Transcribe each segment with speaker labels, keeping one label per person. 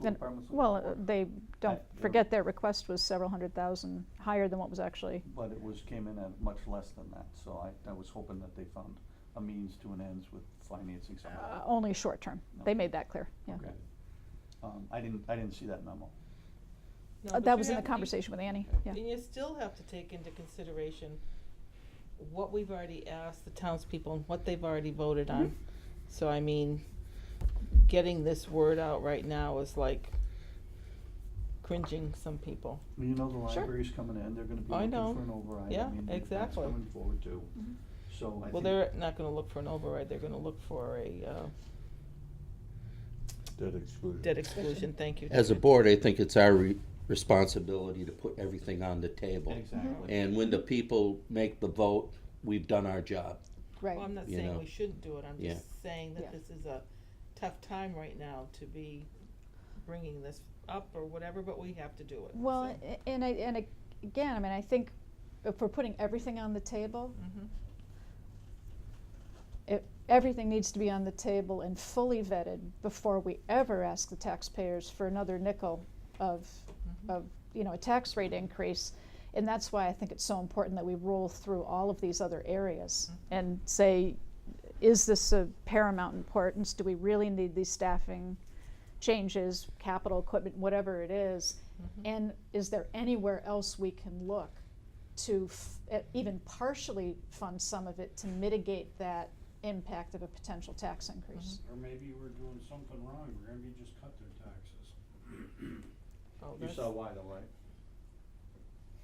Speaker 1: Then-
Speaker 2: departments would
Speaker 1: Well, uh,
Speaker 2: report,
Speaker 1: they, don't
Speaker 2: they're-
Speaker 1: forget their request was several hundred thousand higher than what was actually,
Speaker 2: But it was, came in at much less than that, so I, I was hoping that they found a means to an ends with financing some
Speaker 1: uh,
Speaker 2: of
Speaker 1: only short term. They
Speaker 2: Okay.
Speaker 1: made that clear, yeah.
Speaker 2: that. Okay. Um, I didn't, I didn't see that memo.
Speaker 3: No,
Speaker 1: Uh,
Speaker 3: but
Speaker 1: That
Speaker 3: you
Speaker 1: was in the
Speaker 3: have- you-
Speaker 1: conversation with Annie,
Speaker 2: Okay.
Speaker 1: yeah.
Speaker 3: And you still have to take into consideration what we've already asked the townspeople and what they've already voted on.
Speaker 1: Mm-hmm.
Speaker 3: So I mean, getting this word out right now is like cringing some people.
Speaker 2: Well, You know, the
Speaker 1: Sure.
Speaker 2: library's coming in, they're gonna be
Speaker 3: I
Speaker 2: looking
Speaker 3: know.
Speaker 2: for an override, I
Speaker 3: Yeah,
Speaker 2: mean, that's
Speaker 3: exactly. Mm-hmm.
Speaker 2: coming forward too,
Speaker 1: Mhm.
Speaker 2: so I
Speaker 3: Well,
Speaker 2: think-
Speaker 3: they're not gonna look for an override, they're gonna look for a, uh,
Speaker 4: Debt exclusion.
Speaker 3: debt exclusion, thank you.
Speaker 5: As a
Speaker 3: David.
Speaker 5: board, I think it's our re- responsibility to put everything on the table.
Speaker 2: Exactly.
Speaker 5: And when the people make the vote, we've done our job.
Speaker 1: Right,
Speaker 3: Well, I'm not
Speaker 5: you
Speaker 3: saying
Speaker 5: know.
Speaker 3: we shouldn't do it, I'm
Speaker 5: Yeah.
Speaker 3: just saying
Speaker 1: Yeah.
Speaker 3: that this is a tough time right now to be bringing this up or whatever, but we have to do it.
Speaker 1: well, a- and I, and ag- again, I mean, I think if we're putting everything on the table,
Speaker 3: hmm
Speaker 1: it, everything needs to be on the table and fully vetted before we ever ask the taxpayers for another nickel of,
Speaker 3: Mhm.
Speaker 1: of, you know, a tax rate increase. And that's why I think it's so important that we roll through all of these other areas
Speaker 3: Mhm.
Speaker 1: and say, is this of paramount importance? Do we really need these staffing changes, capital equipment, whatever it is?
Speaker 3: Mhm.
Speaker 1: And is there anywhere else we can look to f- e- even partially fund some of it to mitigate that impact of a potential tax increase?
Speaker 6: Or maybe we're doing something wrong, or maybe just cut their taxes.
Speaker 3: Oh,
Speaker 2: You
Speaker 3: that's-
Speaker 2: saw why though, right?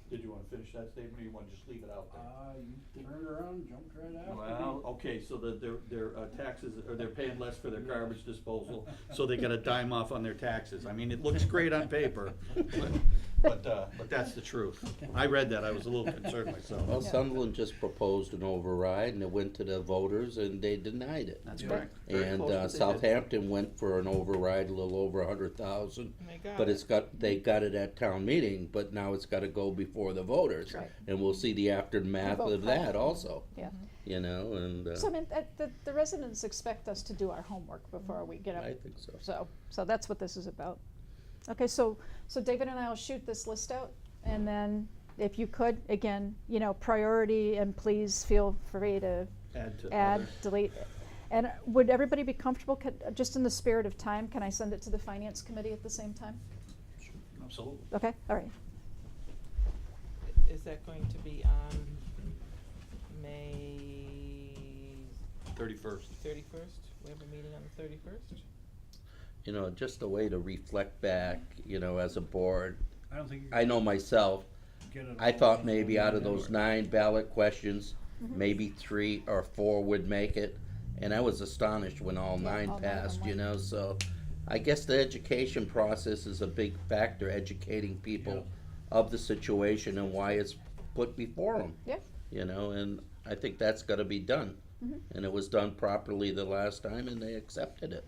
Speaker 2: Did you wanna finish that statement, or you wanna just leave it out there?
Speaker 6: Uh, you turned around, jumped right after me.
Speaker 2: Well,
Speaker 6: oh,
Speaker 2: okay, so that their, their uh, taxes, or they're paying less for their garbage disposal, so they got a dime off on their taxes. I mean, it looks great on paper, but, but, uh, but that's the truth. I read that, I was a little concerned myself.
Speaker 5: Well, Sunderland just proposed an override and it went to the voters and they denied it.
Speaker 2: That's
Speaker 6: Yeah.
Speaker 2: correct. Very
Speaker 5: And
Speaker 2: close, but
Speaker 5: uh,
Speaker 2: they didn't.
Speaker 5: Southampton went for an override, a little over a hundred thousand.
Speaker 3: And they got
Speaker 5: But
Speaker 3: it.
Speaker 5: it's got, they got it at town meeting, but now it's gotta go before the voters.
Speaker 1: Right.
Speaker 5: And we'll see the aftermath
Speaker 1: The vote
Speaker 5: of that
Speaker 1: count.
Speaker 5: also,
Speaker 1: Yeah,
Speaker 5: you know, and, uh,
Speaker 1: so I mean, that- the, the residents expect us to do our homework before we get up
Speaker 5: I think so.
Speaker 1: So, so that's what this is about. Okay, so, so David and I will shoot this list out, and then if you could, again, you know, priority, and please feel free to
Speaker 2: Add to
Speaker 1: add,
Speaker 2: others.
Speaker 1: delete. And uh, would everybody be comfortable, could- uh, just in the spirit of time, can I send it to the finance committee at the same time?
Speaker 2: Absolutely.
Speaker 1: Okay, all right.
Speaker 3: Is that going to be on May
Speaker 2: Thirty-first.
Speaker 3: thirty-first? We have a meeting on the thirty-first?
Speaker 5: You know, just a way to reflect back, you know, as a board.
Speaker 6: I don't think you
Speaker 5: I know myself,
Speaker 6: get it.
Speaker 5: I
Speaker 6: all
Speaker 5: thought
Speaker 6: done
Speaker 5: maybe
Speaker 6: in
Speaker 5: out of those
Speaker 6: January.
Speaker 5: nine ballot questions,
Speaker 1: Mm-hmm.
Speaker 5: maybe three or four would make it. And I was astonished when all
Speaker 1: Yeah,
Speaker 5: nine
Speaker 1: all nine on
Speaker 5: passed, you
Speaker 1: one.
Speaker 5: know, so I guess the education process is a big factor, educating people of the situation and why it's put before them,
Speaker 1: Yeah,
Speaker 5: you know, and I think that's gotta be done.
Speaker 1: Mm-hmm.
Speaker 5: And it was done properly the last time and they accepted it.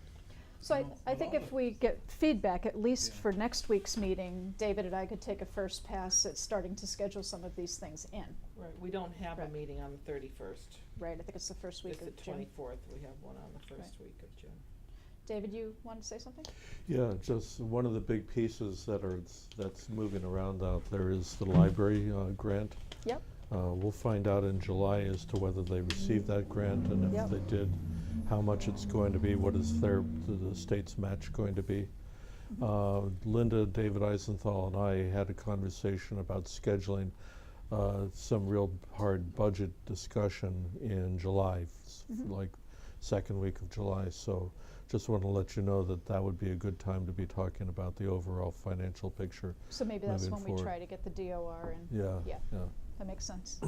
Speaker 1: so I,
Speaker 6: No,
Speaker 1: I think
Speaker 6: well-
Speaker 1: if we get feedback, at least
Speaker 6: Yeah.
Speaker 1: for next week's meeting, David and I could take a first pass at starting to schedule some of these things in,
Speaker 3: Right, we don't have a
Speaker 1: Correct.
Speaker 3: meeting on the thirty-first.
Speaker 1: right? I think it's the first week
Speaker 3: It's the
Speaker 1: of June.
Speaker 3: twenty-fourth, we have one on the first week of June.
Speaker 1: David, you wanted to say something?
Speaker 4: Yeah, just one of the big pieces that are, that's moving around out there is the library uh, grant.
Speaker 1: Yep.
Speaker 4: Uh, We'll find out in July as to whether they received that grant, and
Speaker 1: Yep.
Speaker 4: if they did, how much it's going to be, what is their, the state's match going to be. Uh, Linda, David Eisenthal, and I had a conversation about scheduling uh, some real hard budget discussion in July, s- like second week of July. So just want to let you know that that would be a good time to be talking about the overall financial picture.
Speaker 1: So maybe that's
Speaker 4: moving
Speaker 1: when we
Speaker 4: forward.
Speaker 1: try to get the DOR in.
Speaker 4: Yeah,
Speaker 1: Yeah.
Speaker 4: yeah.
Speaker 1: That makes sense.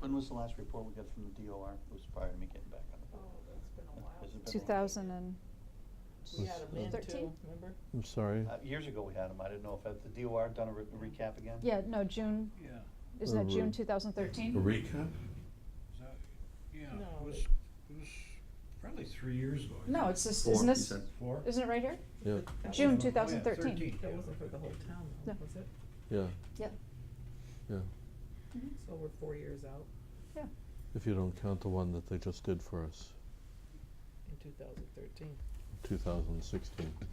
Speaker 2: When was the last report we got from the DOR? It was prior to me getting back on the board. Has it Oh, been a
Speaker 1: Two
Speaker 2: while?
Speaker 1: thousand and,
Speaker 3: We
Speaker 4: Was,
Speaker 3: had a
Speaker 4: uh,
Speaker 3: man too,
Speaker 1: 13?
Speaker 3: remember?
Speaker 4: I'm sorry.
Speaker 2: Uh, years ago we had them, I didn't know if, had the DOR done a re- recap again?
Speaker 1: yeah, no, June,
Speaker 6: Yeah,
Speaker 1: isn't that June
Speaker 4: Alright.
Speaker 1: two thousand thirteen?
Speaker 4: Recap?
Speaker 6: is that, yeah,
Speaker 3: No,
Speaker 6: it was,
Speaker 3: it-
Speaker 6: it was probably three years ago. I
Speaker 1: No,
Speaker 6: think.
Speaker 1: it's this,
Speaker 5: Four,
Speaker 1: isn't
Speaker 5: you
Speaker 1: this,
Speaker 5: said.
Speaker 6: Four?
Speaker 1: isn't it right here?
Speaker 4: Yeah,
Speaker 3: That was-
Speaker 1: June
Speaker 6: Oh, yeah,
Speaker 1: 2013.
Speaker 3: That
Speaker 6: yeah,
Speaker 3: wasn't for the whole town though,
Speaker 1: No.
Speaker 3: was it?
Speaker 4: yeah,
Speaker 1: Yeah.
Speaker 4: yeah.
Speaker 3: So we're four years out
Speaker 1: Mm-hmm. Yeah,
Speaker 4: If you don't count the one that they just did for us,
Speaker 3: in two thousand thirteen.
Speaker 4: 2016.